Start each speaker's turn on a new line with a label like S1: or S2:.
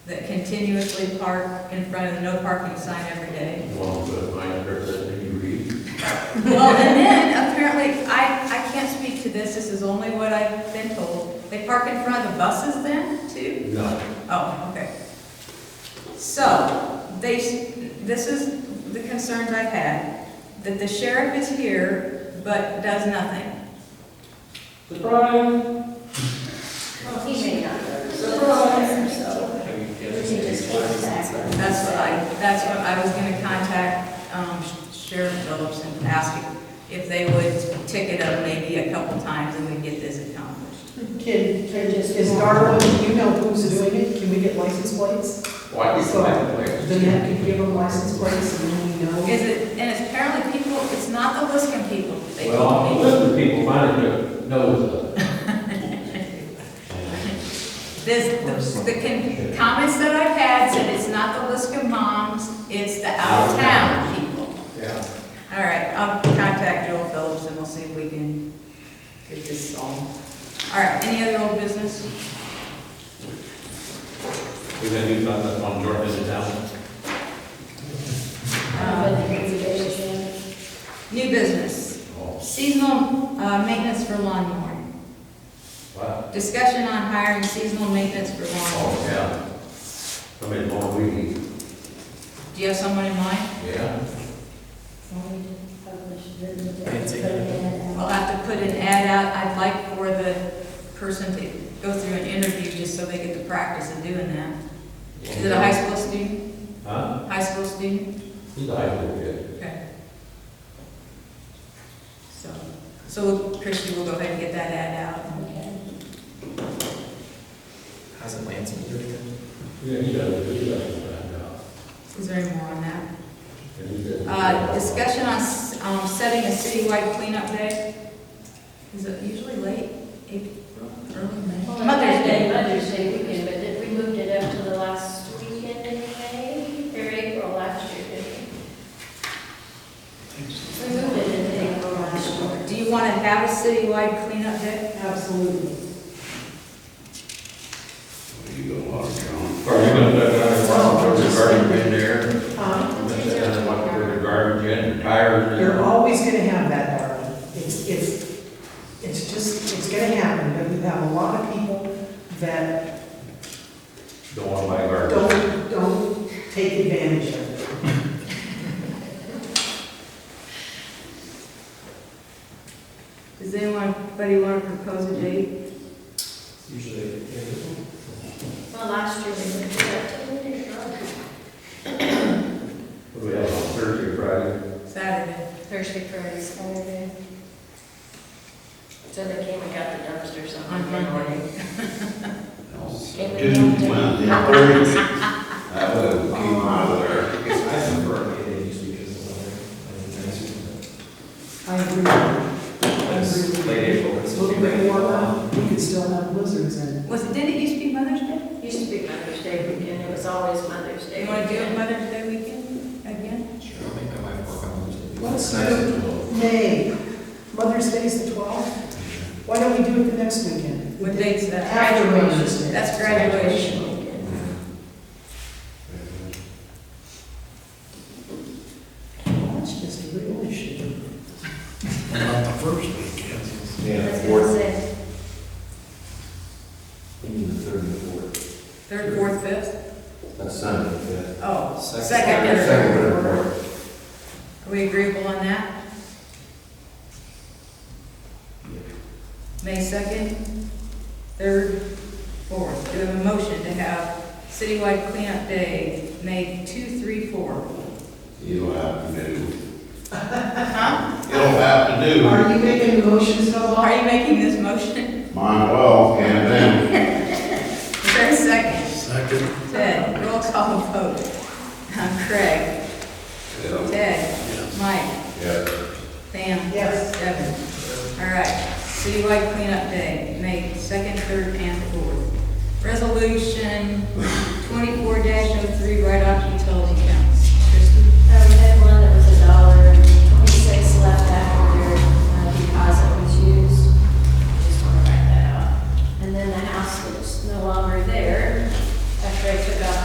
S1: continuously park in front of the no parking sign every day.
S2: Well, but my interpretation, you read,
S1: Well, and then apparently, I, I can't speak to this, this is only what I've been told. They park in front of the buses then, too?
S2: no,
S1: Oh, okay. So, they, s- this is the concerns I've had, that the sheriff is here but does nothing.
S3: Surprise!
S4: Well, he may not notice.
S3: Surprise.
S4: So,
S2: I mean,
S4: we can just
S2: yes,
S4: get back.
S1: That's what I, that's what I was gonna contact um, Sheriff Phillips and ask him if they would ticket him maybe a couple times and we'd get this accomplished.
S5: Can, can, is Darla, do you know who's doing it? Can we get license plates?
S2: why do you
S5: So,
S2: have to
S5: Then that could give them license plates and then we know.
S1: Is it, and it's apparently people, it's not the Liskin people, they
S2: Well,
S1: told me.
S2: listen, people find it, no, it's not.
S1: This, the, the con- comments that I've had said it's not the Liskin moms, it's the out-of-town people.
S2: Yeah.
S1: All right, I'll contact Joel Phillips and we'll see if we can get this solved. All right, any other old business?
S2: We're gonna do something on Jordan in town.
S4: Um, but they can be patient.
S1: New business,
S2: Oh,
S1: seasonal uh, maintenance for lawnmower.
S2: wow,
S1: Discussion on hiring seasonal maintenance for
S2: oh,
S1: lawnmower.
S2: yeah. I mean, more weedy,
S1: Do you have someone in mind?
S2: yeah.
S4: Well, we just published it in the-
S3: Fancy.
S4: put it in,
S1: I'll
S4: uh,
S1: have to put an ad out, I'd like for the person to go through an interview just so they get the practice of doing that. Is it a high school student,
S2: Huh?
S1: high school student?
S2: He's a high school kid.
S1: Okay. So, so Christie will go ahead and get that ad out.
S4: Okay.
S3: Hasn't Lance been doing it?
S2: Yeah, he does, he does, I know.
S1: Is there any more on that?
S2: And he does-
S1: Uh, Discussion on s- um, setting a citywide cleanup day. Is it usually late April, early May?
S4: Well, Mother's Day, Mother's Day weekend, but did- we moved it up to the last weekend in May, or April last year, didn't we? We moved it in April last year.
S1: Do you want to have a citywide cleanup day?
S5: Absolutely.
S6: You got a lot of
S2: Are
S6: ground.
S2: you gonna put another one,
S1: Oh.
S2: put the garbage in there?
S5: Um,
S2: Put another one, put the garbage in, the tires in there?
S5: You're always gonna have that, Darla. It's, it's, it's just, it's gonna happen, but you have a lot of people that
S2: Don't want to buy garbage.
S5: don't, don't take advantage of it.
S1: Does anyone, anybody want to propose a date?
S3: Usually.
S4: Well, last year we moved it up to the
S2: What do we have on Thursday, Friday?
S1: Saturday.
S4: Thursday, Friday, Saturday. So they came and got the dumpsters on
S1: On
S4: Monday.
S6: Dude, when the birds, I would have came out of there.
S3: I guess I prefer it Monday just because of the weather.
S5: I agree. I
S3: I mean,
S5: agree.
S3: It's late April, it's
S5: It's a
S3: still
S5: little bit warmer, we could still have blizzards in.
S1: Was it, didn't it used to be Mother's Day?
S4: Used to be Mother's Day weekend, it was always Mother's
S1: Do
S4: Day.
S1: you want to do it Mother's Day weekend again?
S3: Sure, I'll make my wife work on Wednesday.
S5: Let's do May, Mother's Day is the twelfth. Why don't we do it the next weekend?
S1: What date's that?
S5: After Mother's Day.
S1: That's graduation.
S5: That's just a real issue.
S6: Not the first weekend.
S4: That's what I said.
S1: Third, fourth, fifth?
S2: That's Sunday, yeah.
S1: Oh,
S3: Second.
S1: second or
S2: Second,
S1: third.
S2: or fourth.
S1: Are we agreeable on that? May 2nd, 3rd, 4th. Do we have a motion to have citywide cleanup day, May 2, 3, 4?
S6: It'll have to do.
S1: Huh?
S6: It'll have to do.
S5: Are you making motions, Noah?
S1: Are you making this motion?
S6: Mine well, and then.
S1: Is there a second?
S6: Second.
S1: Ted, roll call vote. Uh, Craig,
S6: Yeah.
S1: Ted, Mike,
S6: Yeah.
S1: Pam.
S5: Yes.
S1: Devin. All right, citywide cleanup day, May 2nd, oh 3rd, and 4th. Resolution 24-03, write-off uh,